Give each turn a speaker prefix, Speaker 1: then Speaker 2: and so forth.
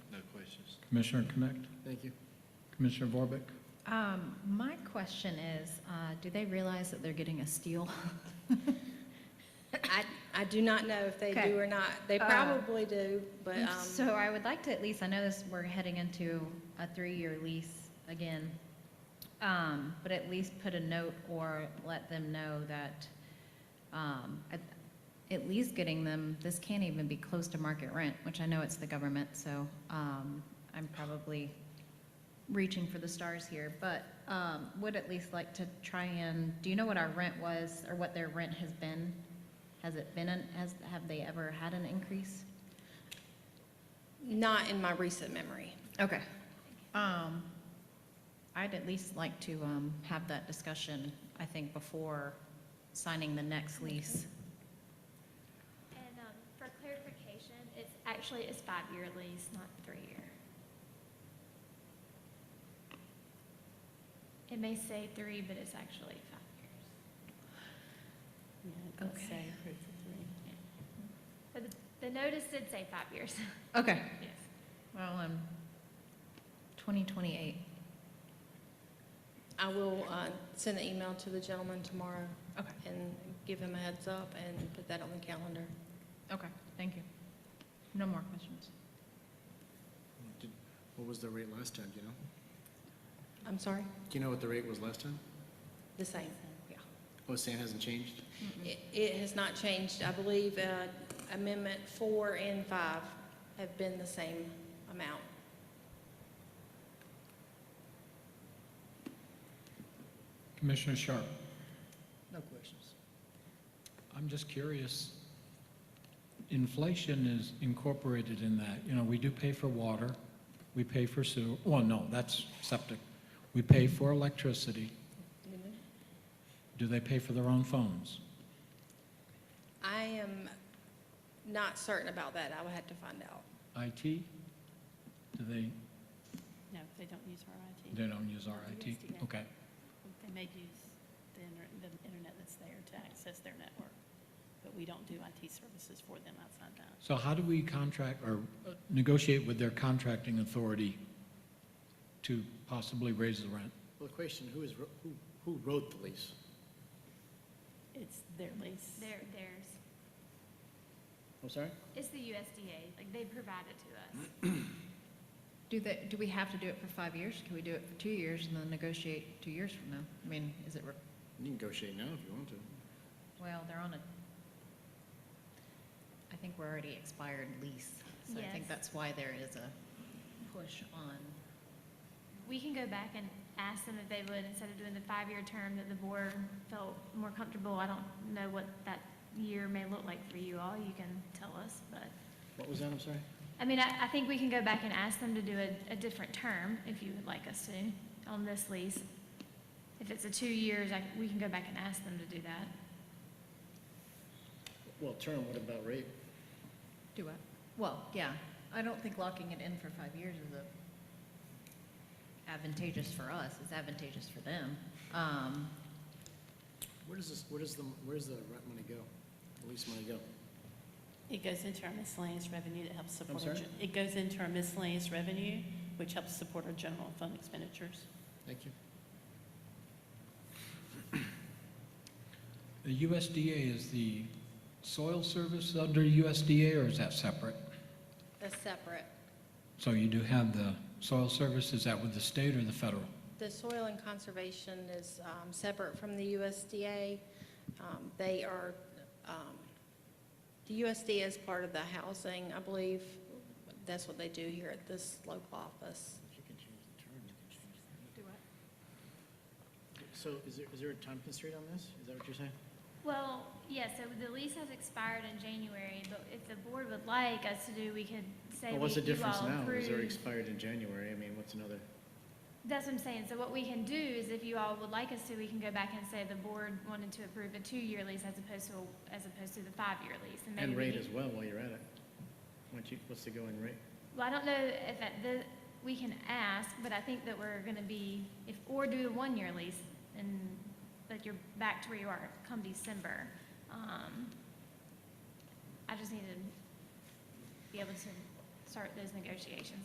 Speaker 1: Commissioner Connect,
Speaker 2: Thank you.
Speaker 1: Commissioner Vorbeck?
Speaker 3: Um, My question is, uh, do they realize that they're getting a steal?
Speaker 4: I, I do not know if they
Speaker 3: Okay.
Speaker 4: do or not. They
Speaker 3: Uh,
Speaker 4: probably do, but, um,
Speaker 3: So I would like to at least, I know this, we're heading into a three-year lease again, um, but at least put a note or let them know that, um, at at least getting them, this can't even be close to market rent, which I know it's the government, so um, I'm probably reaching for the stars here, but um, would at least like to try and, do you know what our rent was, or what their rent has been? Has it been, an- has, have they ever had an increase?
Speaker 4: not in my recent memory.
Speaker 3: Okay. Um, I'd at least like to, um, have that discussion, I think, before signing the next lease.
Speaker 5: And um, for clarification, it's actually, it's five-year lease, not three-year. It may say three, but it's actually five years.
Speaker 3: Okay.
Speaker 5: But the- the notice did say five years,
Speaker 3: Okay,
Speaker 5: yes.
Speaker 3: well, um, twenty twenty-eight.
Speaker 4: I will, uh, send an email to the gentleman tomorrow
Speaker 3: Okay,
Speaker 4: and give him a heads up and put that on the calendar.
Speaker 3: okay, thank you. No more questions.
Speaker 2: Did- What was the rate last time, do you know?
Speaker 4: I'm sorry,
Speaker 2: Do you know what the rate was last time?
Speaker 4: the same, yeah.
Speaker 2: Oh, Sam hasn't changed?
Speaker 4: It, it has not changed. I believe, uh, amendment four and five have been the same amount.
Speaker 1: Commissioner Sharp?
Speaker 6: No questions.
Speaker 1: I'm just curious, inflation is incorporated in that, you know, we do pay for water, we pay for sewer, well, no, that's septic. We pay for electricity, do they pay for their own phones?
Speaker 4: I am not certain about that. I will have to find out.
Speaker 1: IT, do they,
Speaker 7: No, they don't use our IT.
Speaker 1: they don't use our IT?
Speaker 7: Yes, yeah.
Speaker 1: Okay,
Speaker 7: They may use the inter- the internet that's there to access their network, but we don't do IT services for them outside that.
Speaker 1: so how do we contract or uh, negotiate with their contracting authority to possibly raise the rent?
Speaker 2: Well, the question, who is, wro- who, who wrote the lease?
Speaker 7: It's their lease.
Speaker 5: They're- Theirs,
Speaker 2: I'm sorry?
Speaker 5: it's the USDA, like they provide it to us.
Speaker 3: Do they, do we have to do it for five years? Can we do it for two years and then negotiate two years from now? I mean, is it, re-
Speaker 2: You can negotiate now if you want to.
Speaker 3: well, they're on a, I think we're already expired lease, so I think
Speaker 5: Yes.
Speaker 3: that's why there is a push on
Speaker 5: We can go back and ask them if they would, instead of doing the five-year term that the board felt more comfortable. I don't know what that year may look like for you all, you can tell us, but.
Speaker 2: What was that, I'm sorry?
Speaker 5: I mean, I, I think we can go back and ask them to do a, a different term, if you would like us to, on this lease. If it's a two years, I, we can go back and ask them to do that.
Speaker 2: Well, term, what about rate?
Speaker 3: Do what? Well, yeah, I don't think locking it in for five years is a advantageous for us, it's advantageous for them. Um,
Speaker 2: Where does this, where does the, where's the rent money go? The lease money go?
Speaker 7: It goes into our miscellaneous revenue that helps support. our
Speaker 2: sorry?
Speaker 7: gen- It goes into our miscellaneous revenue, which helps support our general fund expenditures.
Speaker 2: Thank you.
Speaker 1: The USDA is the soil service under USDA, or is that separate?
Speaker 4: That's separate.
Speaker 1: So you do have the soil service, is that with the state or the federal?
Speaker 4: The soil and conservation is um, separate from the USDA. Um, They are, um, the USDA is part of the housing, I believe. That's what they do here at this local office.
Speaker 2: If you can change the term, you can change the. Do what? So is there, is there a time constraint on this? Is that what you're saying?
Speaker 5: Well, yeah, so the lease has expired in January, but if the board would like us to do, we could say
Speaker 2: Well,
Speaker 5: we,
Speaker 2: what's the
Speaker 5: you
Speaker 2: difference
Speaker 5: all
Speaker 2: now? Is there
Speaker 5: approve.
Speaker 2: expired in January? I mean, what's another?
Speaker 5: That's what I'm saying, so what we can do is if you all would like us to, we can go back and say the board wanted to approve a two-year lease as opposed to, a- as opposed to the five-year lease. maybe
Speaker 2: And
Speaker 5: we
Speaker 2: rate
Speaker 5: can-
Speaker 2: as well while you're at it. Why don't you, what's the going rate?
Speaker 5: Well, I don't know if at the, we can ask, but I think that we're gonna be, if, or do the one-year lease, and, but you're back to where you are come December. Um, I just need to be able to start those negotiations